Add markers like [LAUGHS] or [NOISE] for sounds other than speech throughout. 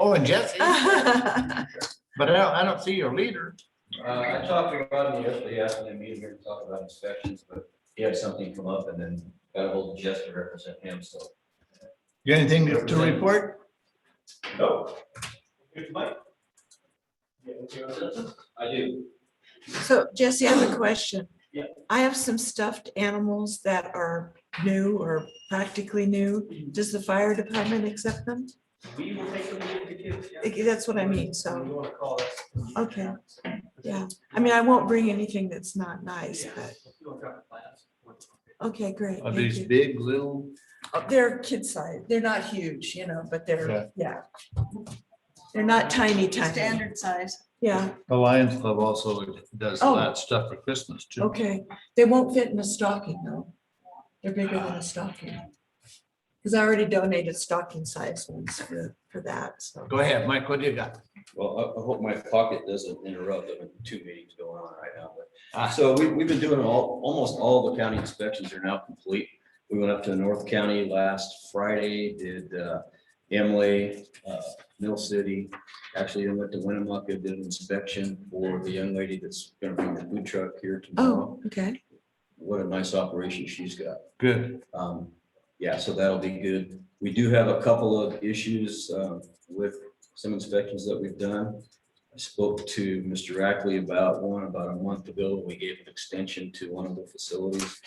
Oh, and [LAUGHS] Jesse, Well, but I don't, I don't see your leader. Uh, I talked about him yesterday after the meeting, we were talking about inspections, but he had something come up and then got a hold of Jess to represent him, so. You got anything to to report? No. I do. So Jesse, I have a question. Yeah. I have some stuffed animals that are new or practically new. Does the fire department accept them? We will take them to the kids. yeah. Eh, That's what I mean, so, You wanna call us. okay, yeah. I mean, I won't bring anything that's not nice, but, You wanna drop the plans? okay, great. Are thank these you. big, little? Uh, They're kid size. They're not huge, you know, but Yeah. they're, yeah. They're not tiny, tiny. Standard size. Yeah, The Lions Club also does Oh. that stuff for Christmas too. okay. They won't fit in a stocking though. They're bigger than a stocking. Because I already donated stocking size ones for, for that, so. Go ahead, Mike, what do you got? Well, I, I hope my pocket doesn't interrupt, there are two meetings going on right now, but. Ah. So we, we've been doing all, almost all the county inspections are now complete. We went up to North County last Friday, did uh, Emily, uh, Mill City. Actually, I went to Winnemucca, did an inspection for the young lady that's gonna bring the food truck here tomorrow. Oh, okay. What a nice operation she's got. Good. Um, yeah, so that'll be good. We do have a couple of issues, uh, with some inspections that we've done. I spoke to Mr. Rackley about one about a month ago. We gave an extension to one of the facilities.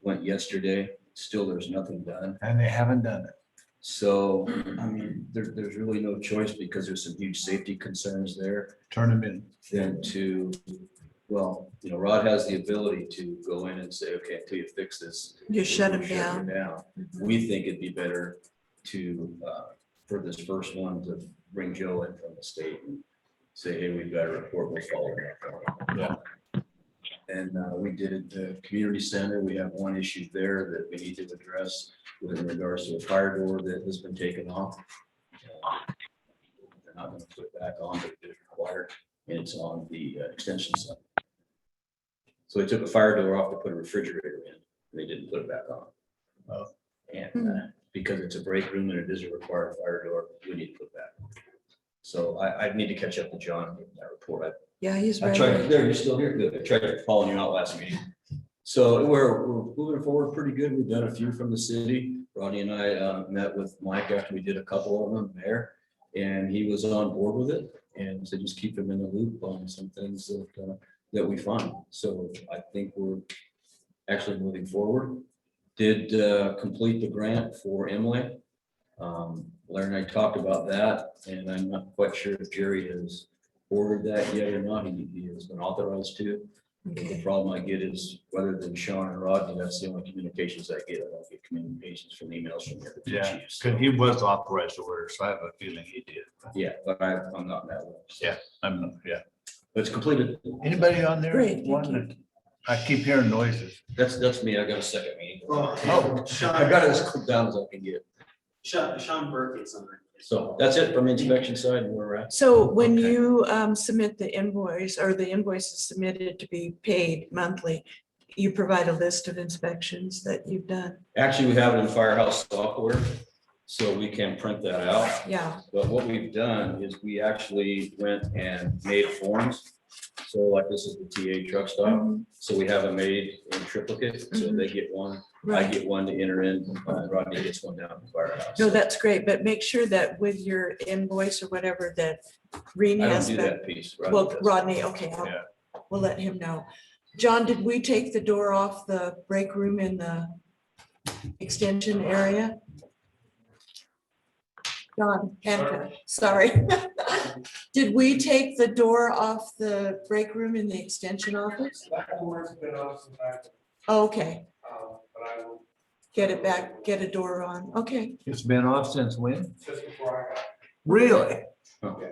Went yesterday, still there's nothing done. And they haven't done it. So, I mean, there, there's really no choice because there's some huge safety concerns there Turn them in. than to, well, you know, Rod has the ability to go in and say, okay, until you fix this. You shut we're them gonna down. Mm-hmm. you Down. We think it'd be better to, uh, for this first one to bring Joe in from the state and say, hey, we've got a report, we're following up. Yeah. And, uh, we did the community center. We have one issue there that we need to address with regards to a fire door that has been taken off. They're not gonna put it back on, but it is required, and it's on the uh, extension side. So they took a fire door off to put a refrigerator in, and they didn't put it back on. Uh, And uh, because it's a break room and it is a required fire door, we need to put that. So I, I need to catch up with John in that report. I Yeah, he's I right. tried, there, you're still here, good, I tried calling you out last meeting. So we're, we're moving forward pretty good, we've done a few from the city, Ronnie and I, uh, met with Mike after we did a couple of them there. And he was on board with it, and so just keep him in the loop on some things that, uh, that we find, so I think we're actually moving forward. Did, uh, complete the grant for Emily. Um, Larry and I talked about that, and I'm not quite sure if Jerry has ordered that yet or not, he, he has been authorized to. The Okay. problem I get is whether than Sean and Rodney, that's the only communications I get, I don't get communications from emails from the other two Yeah, chiefs. Cause he was authorized to order, so I have a feeling he did. Yeah, but I, I'm not in that one. Yeah. I'm, not- yeah. But it's completed, Anybody on there? Great, thank wanting to- I keep hearing noises. that's, that's me, I got a second meeting. Oh, Oh, I got it as Sean, cooked down as I can get, Sean, Sean Burke gets on it. so that's it from the inspection side, and we're at. So when Okay. you um, submit the invoice or the invoice is submitted to be paid monthly, you provide a list of inspections that you've done. Actually, we have it in Firehouse software, so we can print that out. Yeah, But what we've done is we actually went and made forms. So like this is the TA truck stop, Mhm. so we have them made in triplicate, so they get one, I Mm-hmm. right. get one to enter in, uh, Rodney gets one down at the firehouse. No, that's great, but make sure that with your invoice or whatever that Rini I don't has do back. that piece. Rodney Well, does. Rodney, okay, I'll- Yeah. we'll let him know. John, did we take the door off the break room in the extension area? John, Hancock, sorry. [LAUGHS] Did we take the door off the break room in the extension office? That door's been up since I, Okay, um, but I will, get it back, get a door on, okay. It's been off since when? just before I got. Really? Well,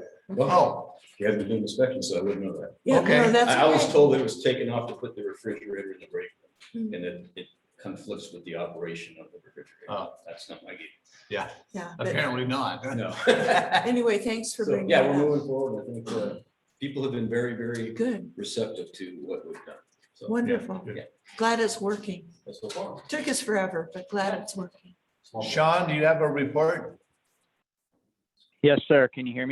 Oh, you haven't been inspection, so I wouldn't know that. Yeah, no, Okay. that's I I was okay. told it was taken off to put the refrigerator in the break room, Hmm. and it, it conflicts with the operation of the refrigerator. Oh. That's not my game. Yeah, but apparently not. No. anyway, thanks for So, bringing yeah, we're that up. moving forward. I think, uh, people have been very, very Good, receptive to what we've done. So wonderful. Yeah. Glad it's working. so far. Took us forever, but glad it's working. Sean, do you have a report? Yes, sir. Can you hear me?